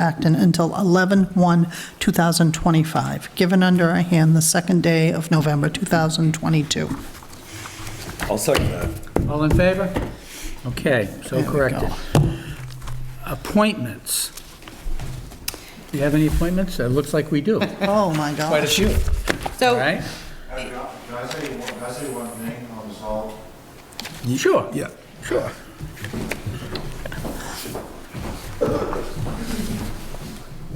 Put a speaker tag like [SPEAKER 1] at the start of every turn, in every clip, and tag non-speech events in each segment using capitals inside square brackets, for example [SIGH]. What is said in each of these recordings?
[SPEAKER 1] Acton until 11/1/2025, given under our hand the second day of November 2022.
[SPEAKER 2] I'll second that.
[SPEAKER 3] All in favor? Okay, so
[SPEAKER 1] There we
[SPEAKER 3] corrected.
[SPEAKER 1] go.
[SPEAKER 3] Appointments. Do you have any appointments? It looks like we do,
[SPEAKER 1] Oh, my
[SPEAKER 3] quite a
[SPEAKER 1] gosh.
[SPEAKER 3] few, all
[SPEAKER 4] So,
[SPEAKER 3] right?
[SPEAKER 5] Can I say one, can I say one thing on this all?
[SPEAKER 3] Sure.
[SPEAKER 2] Yeah.
[SPEAKER 3] Sure.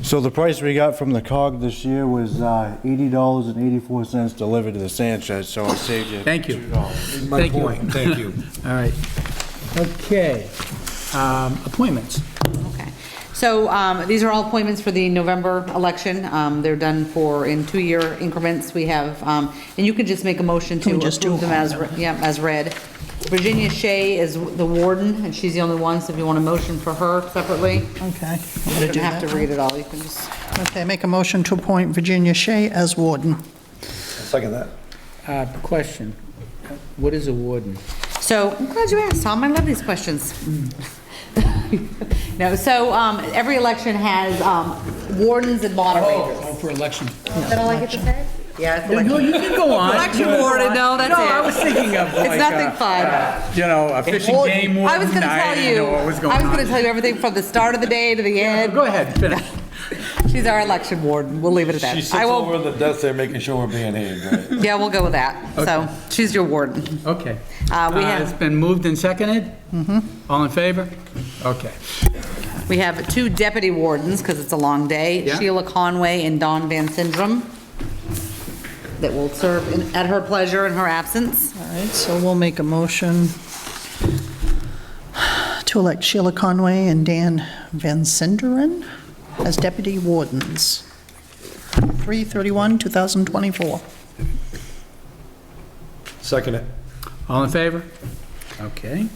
[SPEAKER 5] So the price we got from the COG this year was uh, $80.84 delivered to the sand shed, so I saved you.
[SPEAKER 3] Thank you.
[SPEAKER 5] $2.
[SPEAKER 2] My
[SPEAKER 3] Thank you.
[SPEAKER 2] point, thank you.
[SPEAKER 3] [LAUGHS] All right. Okay. Um, Appointments.
[SPEAKER 4] okay. So um, these are all appointments for the November election. Um, They're done for, in two-year increments, we have, um, and you could just make a motion to
[SPEAKER 1] Can we just do
[SPEAKER 4] approve them as,
[SPEAKER 1] all
[SPEAKER 4] re- yeah, as read. Virginia Shea is the warden, and she's the only one, so if you want a motion for her separately,
[SPEAKER 1] Okay. I'm
[SPEAKER 4] you
[SPEAKER 1] gonna
[SPEAKER 4] don't
[SPEAKER 1] do
[SPEAKER 4] have to
[SPEAKER 1] that.
[SPEAKER 4] read it all, you can just,
[SPEAKER 1] Okay, make a motion to appoint Virginia Shea as warden.
[SPEAKER 2] Second that.
[SPEAKER 3] Uh, Question. What is a warden?
[SPEAKER 4] So, I'm glad you asked, Tom, I love these questions. [LAUGHS] No, so um, every election has um, wardens and moderators.
[SPEAKER 3] Oh, for election.
[SPEAKER 4] Is that all I get to say? Yeah, it's
[SPEAKER 3] No, you can go on.
[SPEAKER 4] Election warden, [LAUGHS] no, that's
[SPEAKER 3] No, I
[SPEAKER 4] it.
[SPEAKER 3] was thinking of like.
[SPEAKER 4] It's nothing
[SPEAKER 3] uh,
[SPEAKER 4] fun.
[SPEAKER 3] uh, You know, a fishing game warden.
[SPEAKER 4] I was gonna tell
[SPEAKER 3] didn't
[SPEAKER 4] you,
[SPEAKER 3] know what was going
[SPEAKER 4] I was gonna
[SPEAKER 3] on.
[SPEAKER 4] tell you everything from the start of the day to the end.
[SPEAKER 3] Go ahead, finish.
[SPEAKER 4] She's our election warden, we'll leave it at
[SPEAKER 2] She
[SPEAKER 4] that.
[SPEAKER 2] sits
[SPEAKER 4] I
[SPEAKER 2] over
[SPEAKER 4] will,
[SPEAKER 2] on the desk there making sure we're being paid, right?
[SPEAKER 4] yeah, we'll go with that. So, she's your warden.
[SPEAKER 3] Okay.
[SPEAKER 4] Uh, we
[SPEAKER 3] Uh,
[SPEAKER 4] have-
[SPEAKER 3] It's been moved and seconded? Mm-hmm. All in favor? Okay.
[SPEAKER 4] We have two deputy wardens, because it's a long day,
[SPEAKER 3] Yeah.
[SPEAKER 4] Sheila Conway and Dawn Van Syndrome, that will serve in- at her pleasure in her absence.
[SPEAKER 1] All right, so we'll make a motion to elect Sheila Conway and Dan Van Sinderen as deputy wardens. 331, 2024
[SPEAKER 2] Second it.
[SPEAKER 3] All in favor? Okay.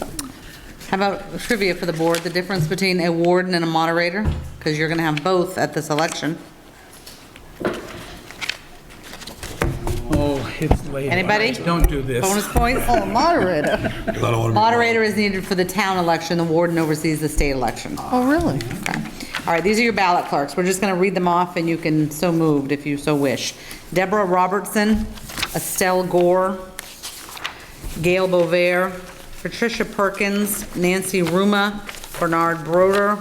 [SPEAKER 4] How about trivia for the board, the difference between a warden and a moderator? Because you're going to have both at this election.
[SPEAKER 3] Oh, it's late.
[SPEAKER 4] Anybody?
[SPEAKER 3] Don't do this.
[SPEAKER 4] Bonus points? Oh, moderator. Moderator is needed for the town election, the warden oversees the state election.
[SPEAKER 1] Oh, really?
[SPEAKER 4] Okay. All right, these are your ballot clerks. We're just going to read them off, and you can so moved if you so wish. Deborah Robertson, Estelle Gore, Gail Bovair, Patricia Perkins, Nancy Ruma, Bernard Broder,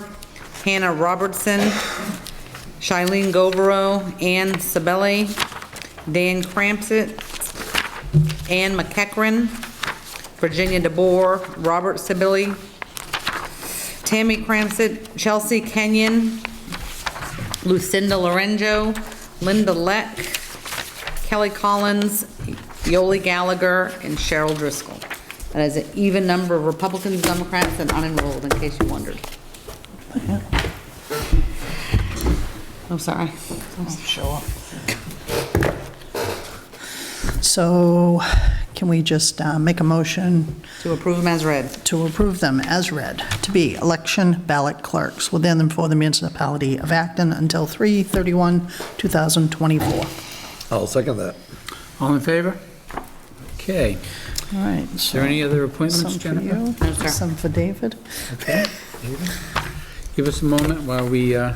[SPEAKER 4] Hannah Robertson, Shailene Govero, Ann Sabelli, Dan Crampsit, Ann McEachran, Virginia DeBoer, Robert Sibley, Tammy Cramsett, Chelsea Kenyon, Lucinda Lorenzo, Linda Leck, Kelly Collins, Yoli Gallagher, and Cheryl Driscoll. That is an even number of Republicans, Democrats, and unenrolled, in case you wondered. I'm sorry.
[SPEAKER 1] Sure. So can we just uh, make a motion
[SPEAKER 4] To approve them as read.
[SPEAKER 1] to approve them as read, to be election ballot clerks within and for the municipality of Acton until 331, 2024
[SPEAKER 2] I'll second that.
[SPEAKER 3] All in favor? Okay. Is
[SPEAKER 1] All right. Is
[SPEAKER 3] there any other appointments,
[SPEAKER 1] Some for
[SPEAKER 3] Jennifer?
[SPEAKER 1] you,
[SPEAKER 4] No, sir.
[SPEAKER 1] some for David.
[SPEAKER 3] Give us a moment while we, uh,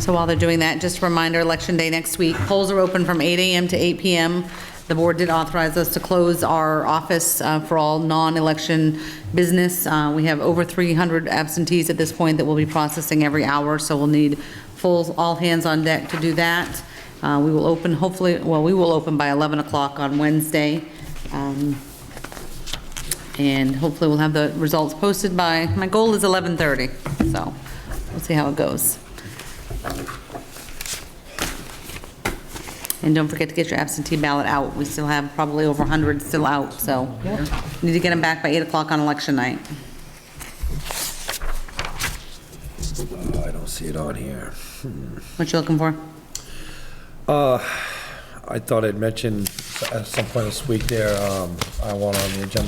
[SPEAKER 4] So while they're doing that, just a reminder, Election Day next week, polls are open from 8 AM to 8 PM. The board did authorize us to close our office uh, for all non-election business. Uh, We have over 300 absentees at this point that we'll be processing every hour, so we'll need full, all hands on deck to do that. Uh, We will open hopefully, well, we will open by 11 o'clock on Wednesday. Um, and hopefully we'll have the results posted by, my goal is 11:30, so we'll see how it goes. And don't forget to get your absentee ballot out. We still have probably over 100 still out, so need to get them back by 8 o'clock on election night.
[SPEAKER 2] I don't see it on here. Hmm.
[SPEAKER 4] What you looking for?
[SPEAKER 2] I thought I'd mentioned at some point this week there, um, I want on the agenda